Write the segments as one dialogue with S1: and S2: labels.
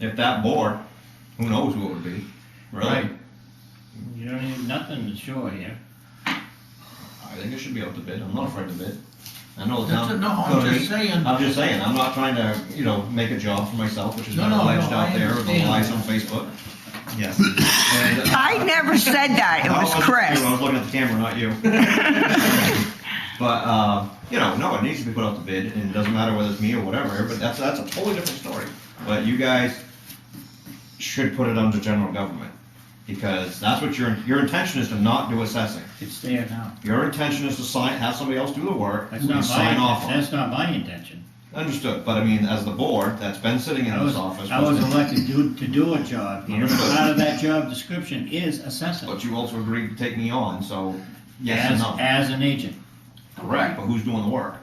S1: if that more, who knows what would be, really?
S2: Right. You don't need nothing to show here.
S1: I think it should be out to bid, I'm not afraid to bid. I know the
S3: That's
S1: town.
S3: it. No, I'm just saying,
S1: I'm just saying, I'm not trying to, you know, make a job for myself, which is
S3: No,
S1: not
S3: no,
S1: alleged
S3: no,
S1: out
S3: I
S1: there, or the
S3: understand.
S1: lies on Facebook. Yes. And, uh,
S4: I never said that. It
S1: Oh,
S4: was
S1: I
S4: Chris.
S1: I was looking at the camera, not you. But, uh, you know, no, it needs to be put out to bid, and it doesn't matter whether it's me or whatever, but that's, that's a totally different story. But you guys should put it under general government, because that's what your, your intention is to not do assessing.
S2: It's there now.
S1: Your intention is to sign, have somebody else do the work,
S2: That's
S1: and
S2: not
S1: sign off
S2: my,
S1: on it.
S2: that's not my intention.
S1: Understood, but I mean, as the board that's been sitting in
S2: I
S1: this
S2: was,
S1: office.
S2: I was elected to, to do a job here.
S1: Understood.
S2: Part of that job description is assessing.
S1: But you also agreed to take me on, so yes and
S2: As,
S1: no.
S2: as an agent,
S1: Correct, but who's doing the work?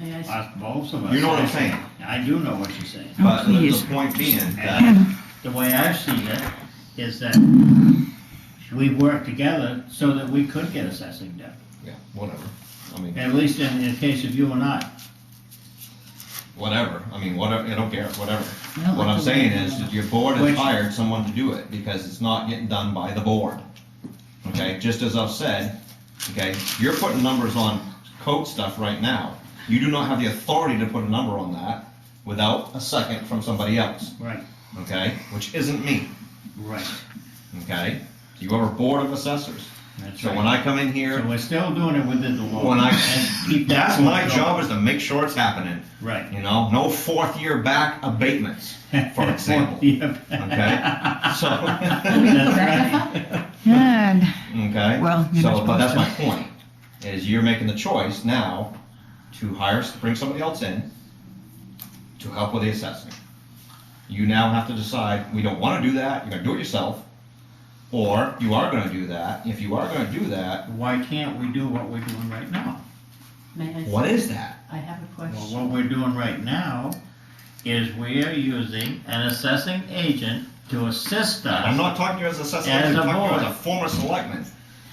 S5: May I s-
S2: us- both of us.
S1: You know what I'm saying?
S2: I do know what you're saying.
S1: But the-
S4: please.
S1: the point being that,
S2: And the way I've seen it is that we work together so that we could get assessing done,
S1: yeah, whatever. I mean,
S2: at least in, in case of you and I.
S1: whatever. I mean, whatever. I don't care. Whatever.
S2: No,
S1: what I'm
S2: that's
S1: saying
S2: okay.
S1: is that your board has
S2: Which-
S1: hired someone to do it because it's not getting done by the board. Okay, just as I've said, okay, you're putting numbers on code stuff right now. You do not have the authority to put a number on that without a second from somebody else,
S2: Right,
S1: okay? Which isn't me,
S2: right,
S1: okay? You are a board of assessors.
S2: that's
S1: So when
S2: right.
S1: I come in here,
S2: So we're still doing it within the law.
S1: When I-
S2: And keep that
S1: that's my
S2: going.
S1: job is to make sure it's happening.
S2: Right.
S1: You know, no fourth year back abatements, for example.
S2: Yep.
S1: Okay? So,
S2: That's right.
S4: Good.
S1: okay?
S4: Well, you're not
S1: So, but that's my
S4: supposed
S1: point, is you're making the choice now to hire, bring somebody else in to help with the assessment. You now have to decide, we don't wanna do that, you're gonna do it yourself, or you are gonna do that. If you are gonna do that,
S2: Why can't we do what we're doing right now?
S5: may I s-
S1: what is that?
S5: I have a
S2: Well,
S5: question.
S2: what we're doing right now is we are using an assessing agent to assist us.
S1: I'm not talking to you as a assessor,
S2: As
S1: I'm
S2: a
S1: talking to you as
S2: board.
S1: a former selectman,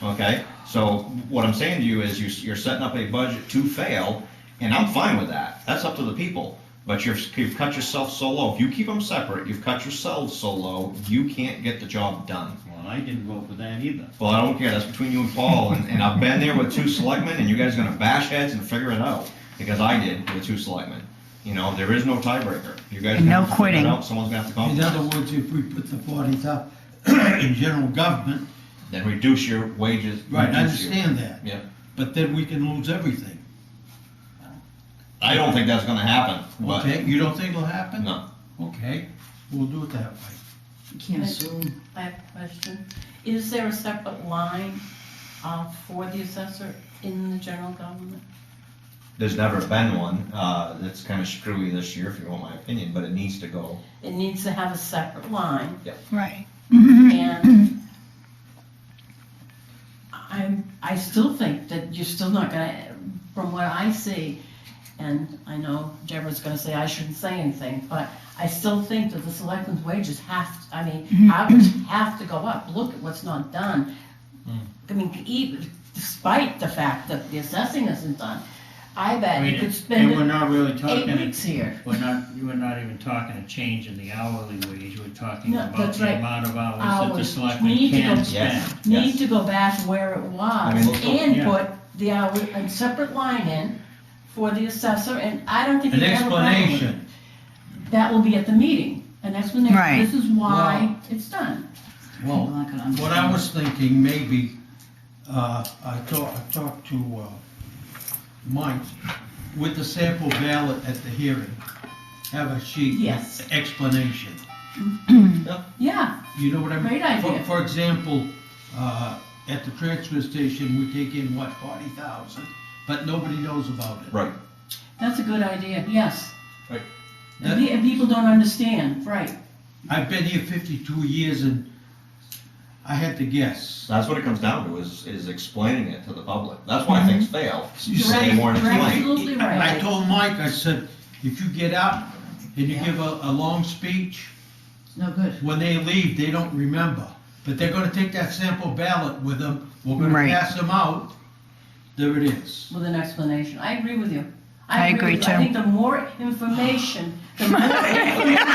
S1: okay? So what I'm saying to you is you, you're setting up a budget to fail, and I'm fine with that, that's up to the people. But you've, you've cut yourself so low, if you keep them separate, you've cut yourselves so low, you can't get the job done.
S2: Well, I didn't vote for that either.
S1: Well, I don't care, that's between you and Paul, and, and I've been there with two selectmen, and you guys are gonna bash heads and figure it out, because I did with two selectmen. You know, there is no tiebreaker, you guys are
S4: And
S1: gonna
S4: no
S1: have to figure it
S4: quitting.
S1: out, someone's gonna have to
S3: In other
S1: compromise.
S3: words, if we put the parties up in general government,
S1: Then reduce your wages.
S3: right, I
S1: reduce your-
S3: understand that,
S1: Yeah.
S3: but then we can lose everything.
S1: I don't think that's gonna happen, but,
S3: Okay, you don't think it'll happen?
S1: no.
S3: Okay, we'll do it that way.
S5: You can't assume. I have a question. Is there a separate line uh, for the assessor in the general government?
S1: There's never been one, uh, that's kinda screwy this year, if you want my opinion, but it needs to go.
S5: It needs to have a separate line
S4: Right. Mm-hmm.
S5: and I'm, I still think that you're still not gonna, from what I see, and I know Deborah's gonna say I shouldn't say anything, but I still think that the selectmen's wages have, I mean, hours have to go up. Look at what's not done. I mean, even despite the fact that the assessing isn't done, I bet you
S2: mean,
S5: could
S2: And we're
S5: spend it
S2: not really talking.
S5: eight weeks here.
S2: We're not, we're not even talking a change in the hourly wage, we're talking
S5: No,
S2: about
S5: that's
S2: the
S5: right.
S2: amount of hours that the
S5: Hours.
S2: selectmen
S5: We need to
S2: can
S5: go-
S2: spend.
S5: Need to go back to where it
S1: I
S5: was
S1: mean, look-
S5: and
S2: Yeah.
S5: put the hour, a separate line in for the assessor, and I don't think.
S3: An
S5: you have a problem with it.
S3: explanation,
S5: That will be at the meeting, an explanation,
S4: Right.
S5: this is why it's done.
S3: well, what I was thinking, maybe, uh, I talked, I talked to, uh, Mike, with the sample ballot at the hearing, have a sheet. with
S5: Yes.
S3: Explanation,
S5: Yeah,
S3: you know what I mean?
S5: Great idea.
S3: For, for example, uh, at the transfer station, we take in, what, forty thousand, but nobody knows about it.
S1: Right.
S5: that's a good idea, yes.
S1: Right.
S5: And pe- and people don't understand, right,
S3: I've been here fifty-two years and I had to guess.
S1: That's what it comes down to, is, is explaining it to the public. That's why things fail.
S3: You
S1: They
S3: say-
S1: weren't
S5: you're
S1: explained.
S5: absolutely
S3: I
S5: right.
S3: told Mike, I said, if you get up and you
S5: Yeah.
S3: give a, a long speech,
S5: No good.
S3: when they leave, they don't remember. But they're gonna take that sample ballot with them, we're gonna
S4: Right.
S3: pass them out, there it is.
S5: With an explanation, I agree with you.
S4: I agree
S5: with you. I
S4: too.
S5: think the more information, the more information